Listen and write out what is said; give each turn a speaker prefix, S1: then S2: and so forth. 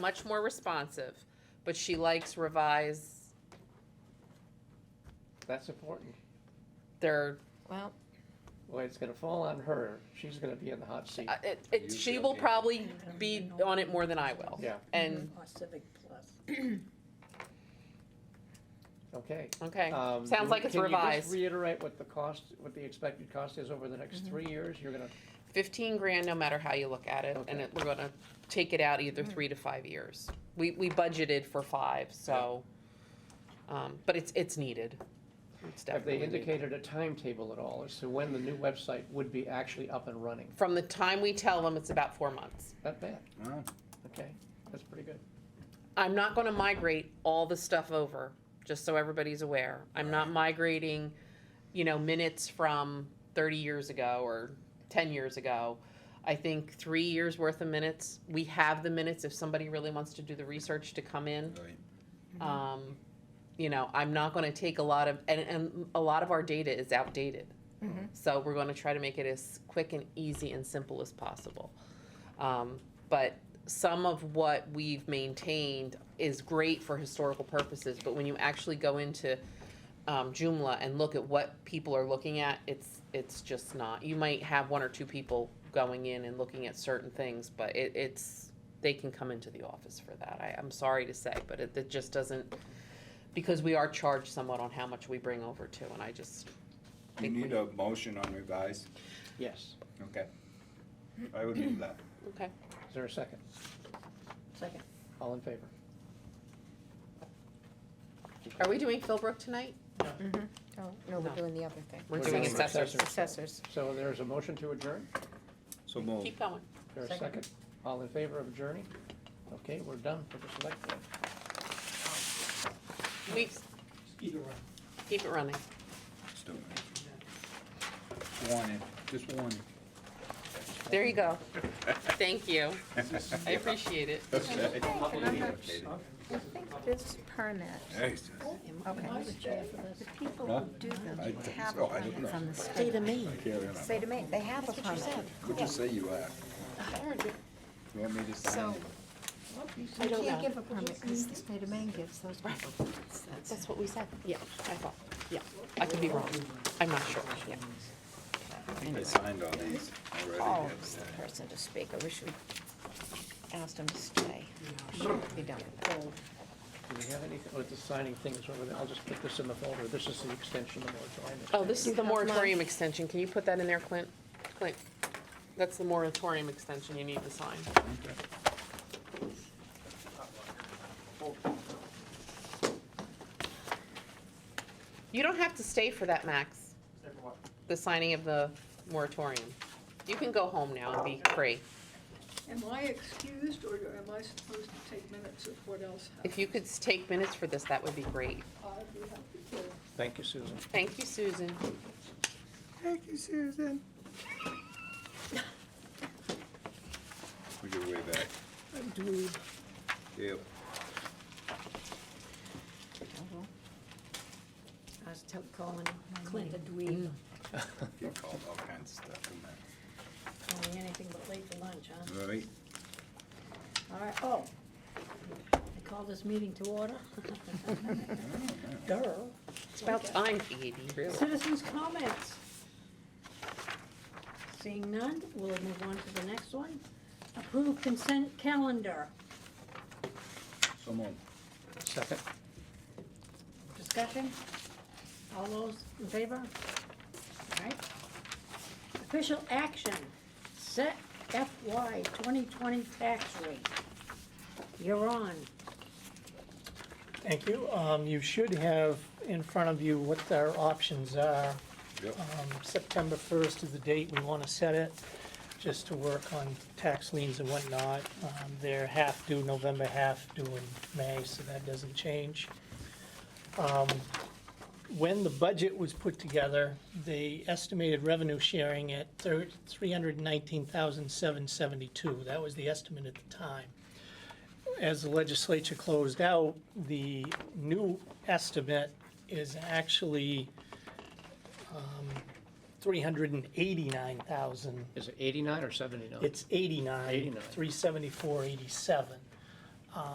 S1: much more responsive, but she likes revise
S2: That's important.
S1: their,
S3: Well,
S2: Well, it's gonna fall on her. She's gonna be in the hot seat.
S1: uh, it, it,
S4: You
S1: she
S4: shall
S1: will
S4: be.
S1: probably be on it more than I will.
S2: Yeah,
S1: And,
S5: Or Civic Plus.
S2: okay.
S1: okay,
S2: Um,
S1: sounds like it's
S2: Can you
S1: revised. Mm-hmm.
S2: just reiterate what the cost, what the expected cost is over the next three years? You're gonna,
S1: Fifteen grand, no matter how you look at it, and
S2: Okay.
S1: it, we're gonna take it out either three to five years. We, we budgeted for five, so, um, but it's, it's needed. It's
S2: have
S1: definitely
S2: they
S1: needed.
S2: indicated a timetable at all as to when the new website would be actually up and running?
S1: From the time we tell them, it's about four months.
S2: Not bad,
S4: Wow.
S2: okay. That's pretty good.
S1: I'm not gonna migrate all the stuff over, just so everybody's aware. I'm not migrating, you know, minutes from thirty years ago or ten years ago. I think three years worth of minutes, we have the minutes if somebody really wants to do the research to come in.
S4: Right.
S1: Um, you know, I'm not gonna take a lot of, and, and a lot of our data is outdated.
S3: Mhm.
S1: So we're gonna try to make it as quick and easy and simple as possible. Um, but some of what we've maintained is great for historical purposes, but when you actually go into um, Joomla and look at what people are looking at, it's, it's just not. You might have one or two people going in and looking at certain things, but it, it's, they can come into the office for that. I, I'm sorry to say, but it, it just doesn't, because we are charged somewhat on how much we bring over too, and I just,
S4: You
S1: Think
S4: need
S1: we-
S4: a motion on revise?
S2: Yes.
S4: Okay. I would do that.
S1: okay.
S2: Is there a second?
S5: Second.
S2: All in favor?
S1: Are we doing Philbrook tonight?
S6: Mm-hmm.
S3: oh, no, we're
S1: No.
S3: doing the other thing.
S1: We're
S2: We're
S1: doing
S2: doing
S1: assessors.
S2: assessors.
S3: Assessors.
S2: So there's a motion to adjourn?
S4: So move.
S1: Keep going.
S2: Is there a
S5: Second.
S2: second? All in favor of adjourning? Okay, we're done for the select board.
S1: We, keep it running.
S4: Stupid. Warning, just warning.
S1: There you go. Thank you. I appreciate it.
S4: Okay.
S6: I think this permit,
S4: Nice.
S6: okay, the people who do
S4: I
S6: them
S4: think
S6: have
S4: so, I don't
S6: permits
S4: know.
S6: on the state of Maine.
S4: I can't remember.
S6: State of Maine, they have a permit.
S4: What'd you say you are? You want me to sign?
S6: So-
S4: it?
S6: You
S1: don't
S6: can't
S1: know.
S6: give a permit because the state of Maine gives those people permits. That's-
S1: That's what we said. Yeah, I thought, yeah. I could be wrong. I'm not sure, yeah.
S4: I think I signed all these
S3: Oh,
S4: already.
S3: it's the person to speak. I wish we asked him to stay. Should be done with that.
S2: Do we have anything, with the signing things over there? I'll just put this in the folder. This is the extension of the moratorium.
S1: Oh, this is the moratorium extension. Can you put that in there, Clint? Clint, that's the moratorium extension you need to sign. You don't have to stay for that, Max. The signing of the moratorium. You can go home now and be free.
S7: Am I excused, or am I supposed to take minutes of what else happened?
S1: If you could take minutes for this, that would be great.
S7: I'd be happy to.
S2: Thank you, Susan.
S1: Thank you, Susan.
S4: Thank you, Susan. We go way back. Yep.
S5: I was tell- calling Clint a dweeb,
S4: Get called all kinds of stuff in there.
S5: calling anything but late for lunch, huh?
S4: All right.
S5: All right, oh. I called this meeting to order. Duh.
S1: It's about time, Katie, really.
S5: Citizens' comments. Seeing none, we'll move on to the next one. Approve consent calendar.
S4: So move.
S2: Second.
S5: Discussion? All those in favor? All right. Official action, set FY 2020 tax rate. You're on.
S8: Thank you. Um, You should have in front of you what our options are.
S4: Yep.
S8: Um, September 1st is the date we want to set it, just to work on tax liens and whatnot. Um, They're half due November, half due in May, so that doesn't change. Um, When the budget was put together, they estimated revenue sharing at thir- 319,772. That was the estimate at the time as the legislature closed out, the new estimate is actually um, 389,000.
S2: Is it eighty-nine or seventy-nine?
S8: It's 89,
S2: 89.
S8: 374, 87.